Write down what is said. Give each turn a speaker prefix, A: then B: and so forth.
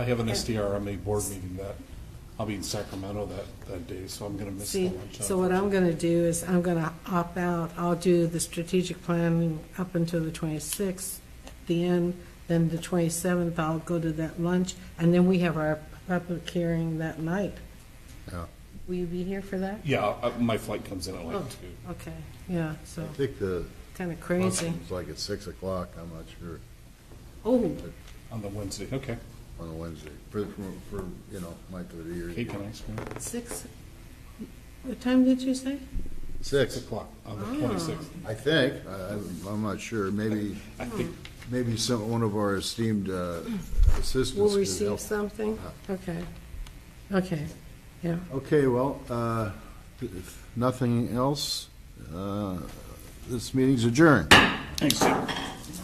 A: I have an SDRMA board meeting that, I'll be in Sacramento that, that day, so I'm gonna miss the
B: See,
A: lunch.
B: so what I'm going to do is I'm going to opt out. I'll do the strategic plan up until the 26th, the end, then the 27th, I'll go to that lunch, and then we have our public hearing that night.
C: Yeah.
B: Will you be here for that?
A: Yeah, uh, my flight comes in at like
B: Oh,
A: two.
B: Okay, yeah, so,
C: I think the
B: kind of crazy.
C: function's like at 6 o'clock, I'm not sure,
B: Oh,
A: On the Wednesday, okay.
C: on a Wednesday, for, for- for, you know, my 30 years.
A: Cake and ice cream,
B: six, what time did you say?
C: 6
A: six o'clock on
B: Ah.
A: the twenty-sixth.
C: I think, I- I'm I'm not sure, maybe,
A: I think,
C: maybe some, one of our esteemed uh,
B: We'll
C: assistants could
B: receive
C: help.
B: something?
A: Uh-huh.
B: Okay, okay, yeah.
C: Okay, well, uh, if nothing else, uh, this meeting's adjourned.
A: thanks, Jim.